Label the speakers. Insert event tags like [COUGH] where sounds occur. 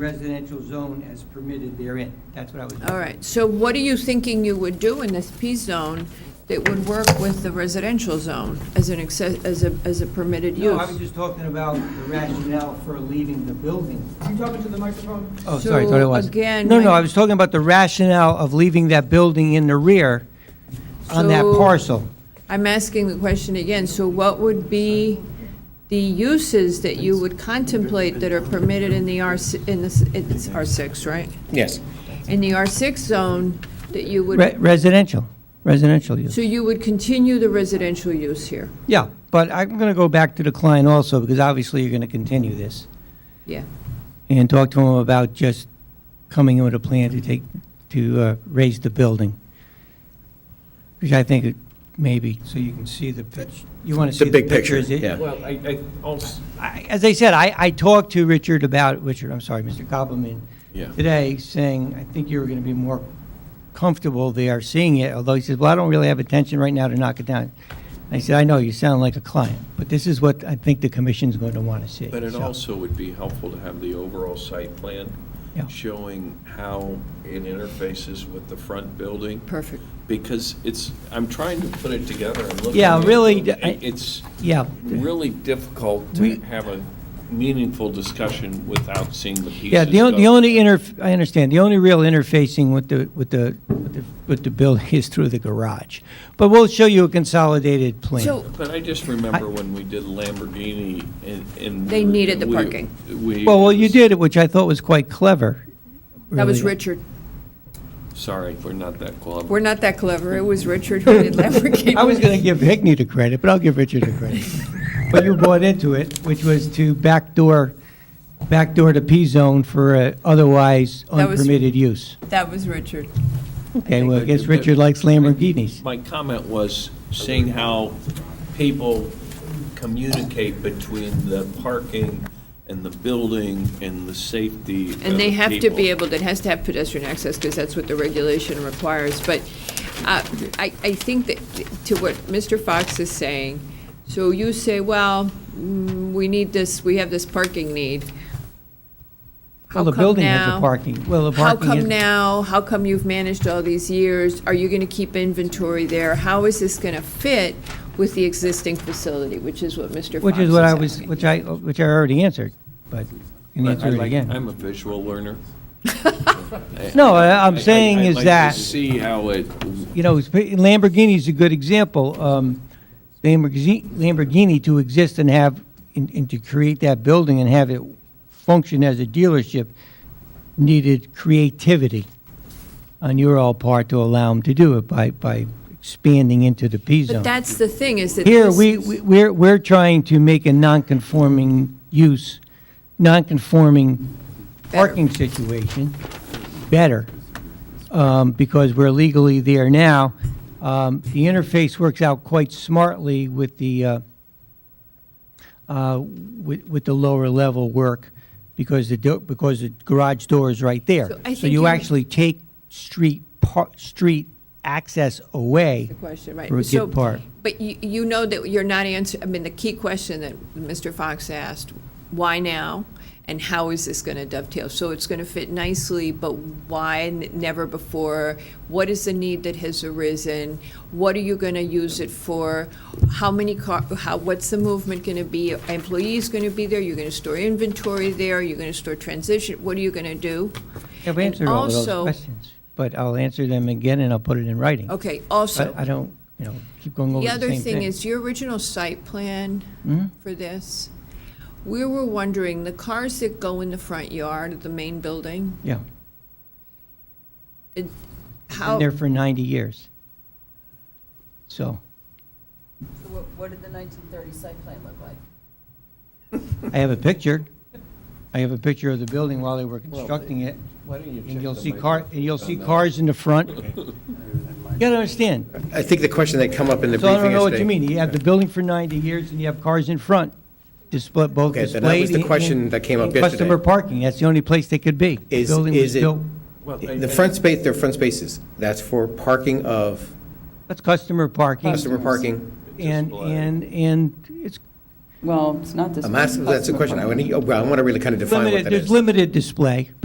Speaker 1: residential zone as permitted therein. That's what I was.
Speaker 2: All right, so what are you thinking you would do in this P-zone that would work with the residential zone as an access, as a, as a permitted
Speaker 1: No, I was
Speaker 2: use?
Speaker 1: just talking about the rationale for leaving the building.
Speaker 3: Can you talk into the microphone?
Speaker 1: Oh, sorry,
Speaker 2: sorry, So,
Speaker 1: thought it was.
Speaker 2: again,
Speaker 1: No, no,
Speaker 2: when-
Speaker 1: I was talking about the rationale of leaving that building in the rear on that
Speaker 2: So-
Speaker 1: parcel.
Speaker 2: I'm asking the question again, so what would be the uses that you would contemplate that are permitted in the R, in this, it's R6, right?
Speaker 4: Yes.
Speaker 2: In the R6 zone that you
Speaker 1: Re-
Speaker 2: would,
Speaker 1: Residential, residential use.
Speaker 2: so you would continue the residential use here?
Speaker 1: Yeah, but I'm going to go back to the client also, because obviously you're going to continue this,
Speaker 2: Yeah,
Speaker 1: and talk to him about just coming in with a plan to take, to uh, raise the building, which I think it maybe, so you can see the pitch, you want to see
Speaker 4: The
Speaker 1: the
Speaker 4: big picture,
Speaker 1: pictures. It-
Speaker 4: yeah.
Speaker 3: Well, I, I also,
Speaker 1: I- As I said, I, I talked to Richard about, Richard, I'm sorry, Mr. Koppelman,
Speaker 4: Yeah.
Speaker 1: today, saying, I think you were going to be more comfortable there seeing it, although he says, well, I don't really have attention right now to knock it down. I said, I know, you sound like a client, but this is what I think the commission's going to want to see.
Speaker 5: But it
Speaker 1: so.
Speaker 5: also would be helpful to have the overall site plan
Speaker 1: Yeah.
Speaker 5: showing how it interfaces with the front building,
Speaker 2: perfect.
Speaker 5: because it's, I'm trying to put it together and look.
Speaker 1: Yeah,
Speaker 5: at it.
Speaker 1: really, I-
Speaker 5: It's
Speaker 1: Yeah,
Speaker 5: really difficult
Speaker 1: We-
Speaker 5: to have a meaningful discussion without seeing the pieces.
Speaker 1: yeah, the on- the
Speaker 5: of-
Speaker 1: only inter, I understand, the only real interfacing with the, with the, with the- with the building [LAUGHS] is through the garage. But we'll show you a consolidated plan.
Speaker 2: So,
Speaker 5: But I just remember when we did Lamborghini and- and.
Speaker 2: They
Speaker 5: we-
Speaker 2: needed the
Speaker 5: we-
Speaker 2: parking.
Speaker 5: We.
Speaker 1: Well, well, you
Speaker 5: it was-
Speaker 1: did it, which I thought was quite clever.
Speaker 2: that was
Speaker 1: really.
Speaker 2: Richard.
Speaker 5: Sorry, we're not that clever.
Speaker 2: We're not that clever, it was Richard who did Lamborghini.
Speaker 1: I was going to give Hickney the credit, but I'll give Richard the
Speaker 2: [LAUGHS]
Speaker 1: credit. But you bought into it, which was to backdoor, backdoor the P-zone for uh, otherwise
Speaker 2: That was-
Speaker 1: unpermitted use.
Speaker 2: That was Richard.
Speaker 1: Okay, well, I guess
Speaker 5: But-
Speaker 1: Richard likes Lamborghinis.
Speaker 5: My comment was seeing how people communicate between the parking and the building and the safety
Speaker 2: And they have to be
Speaker 5: able.
Speaker 2: able, it has to have pedestrian access, because that's what the regulation requires. But uh, I, I think that, to what Mr. Fox is saying, so you say, well, mm, we need this, we have this parking need.
Speaker 1: Well,
Speaker 2: How
Speaker 1: the
Speaker 2: come
Speaker 1: building has a
Speaker 2: now?
Speaker 1: parking, well, the
Speaker 2: How
Speaker 1: parking is...
Speaker 2: come now? How come you've managed all these years? Are you going to keep inventory there? How is this going to fit with the existing facility, which is what Mr. Fox is
Speaker 1: Which is what I was,
Speaker 2: asking.
Speaker 1: which I, uh, which I already answered, but you can answer it again.
Speaker 5: I'm a visual learner.
Speaker 1: No, I-
Speaker 5: I-
Speaker 1: I'm
Speaker 5: I-
Speaker 1: saying
Speaker 5: I'd
Speaker 1: is
Speaker 5: like to
Speaker 1: that...
Speaker 5: see how it,
Speaker 1: you know, Lamborghini's a good example. Um, Lamborghini, Lamborghini to exist and have, and, and to create that building and have it function as a dealership needed creativity on your all part to allow them to do it by, by expanding into the P zone.
Speaker 2: But that's the thing, is that.
Speaker 1: Here,
Speaker 2: this-
Speaker 1: we, we- we're, we're trying to make a non-conforming use, non-conforming
Speaker 2: Better.
Speaker 1: parking situation better, um, because we're legally there now. Um, The interface works out quite smartly with the, uh, uh, with, with the lower level work, because the, do- because the garage door is right
Speaker 2: So
Speaker 1: there.
Speaker 2: I
Speaker 1: So
Speaker 2: think
Speaker 1: you
Speaker 2: you-
Speaker 1: actually take street, par- street access away.
Speaker 2: The question, right.
Speaker 1: For a good
Speaker 2: So-
Speaker 1: part.
Speaker 2: But you, you know that you're not answering, I mean, the key question that Mr. Fox asked, why now? And how is this going to dovetail? So it's going to fit nicely, but why n- never before? What is the need that has arisen? What are you going to use it for? How many car, how, what's the movement going to be? Are Employees going to be there? You're going to store inventory there? You're going to store transition? What are you going to do?
Speaker 1: I've
Speaker 2: And
Speaker 1: answered all of those
Speaker 2: also-
Speaker 1: questions, but I'll answer them again and I'll put it in writing.
Speaker 2: Okay, also.
Speaker 1: I I don't, you know, keep going over
Speaker 2: The
Speaker 1: the same
Speaker 2: other
Speaker 1: thing. Hmm?
Speaker 2: thing is, your original site plan for this, we were wondering, the cars that go in the front yard of the main building,
Speaker 1: Yeah,
Speaker 2: it-
Speaker 1: been
Speaker 2: how,
Speaker 1: there for 90 years. So,
Speaker 6: So What, what did the 1930 site plan look like?
Speaker 1: I have a picture. I have a picture of the building while they were constructing it,
Speaker 5: why don't you
Speaker 1: and you'll see car, and you'll see cars in the
Speaker 4: [LAUGHS]
Speaker 1: front. You gotta understand,
Speaker 4: I think the question that come up in the
Speaker 1: so
Speaker 4: briefing is...
Speaker 1: I don't know what
Speaker 4: they-
Speaker 1: you mean, you have the building for 90 years and you have cars in front, display, both
Speaker 4: Okay, then that
Speaker 1: displayed.
Speaker 4: was the
Speaker 1: and-
Speaker 4: question
Speaker 1: and-
Speaker 4: that came up
Speaker 1: and Customer
Speaker 4: yesterday.
Speaker 1: parking, that's the only place they could be. The
Speaker 4: Is-
Speaker 1: building was
Speaker 4: is it-
Speaker 1: built-
Speaker 4: The front space, their front spaces, that's for parking of
Speaker 1: That's customer parking.
Speaker 4: customer parking.
Speaker 1: And,
Speaker 5: Display.
Speaker 1: and, and it's,
Speaker 6: Well, it's not this.
Speaker 4: I'm
Speaker 6: one.
Speaker 4: asking, that's the question. I want to, I want to really kind of define what
Speaker 1: Limited,
Speaker 4: that is.
Speaker 1: there's limited display.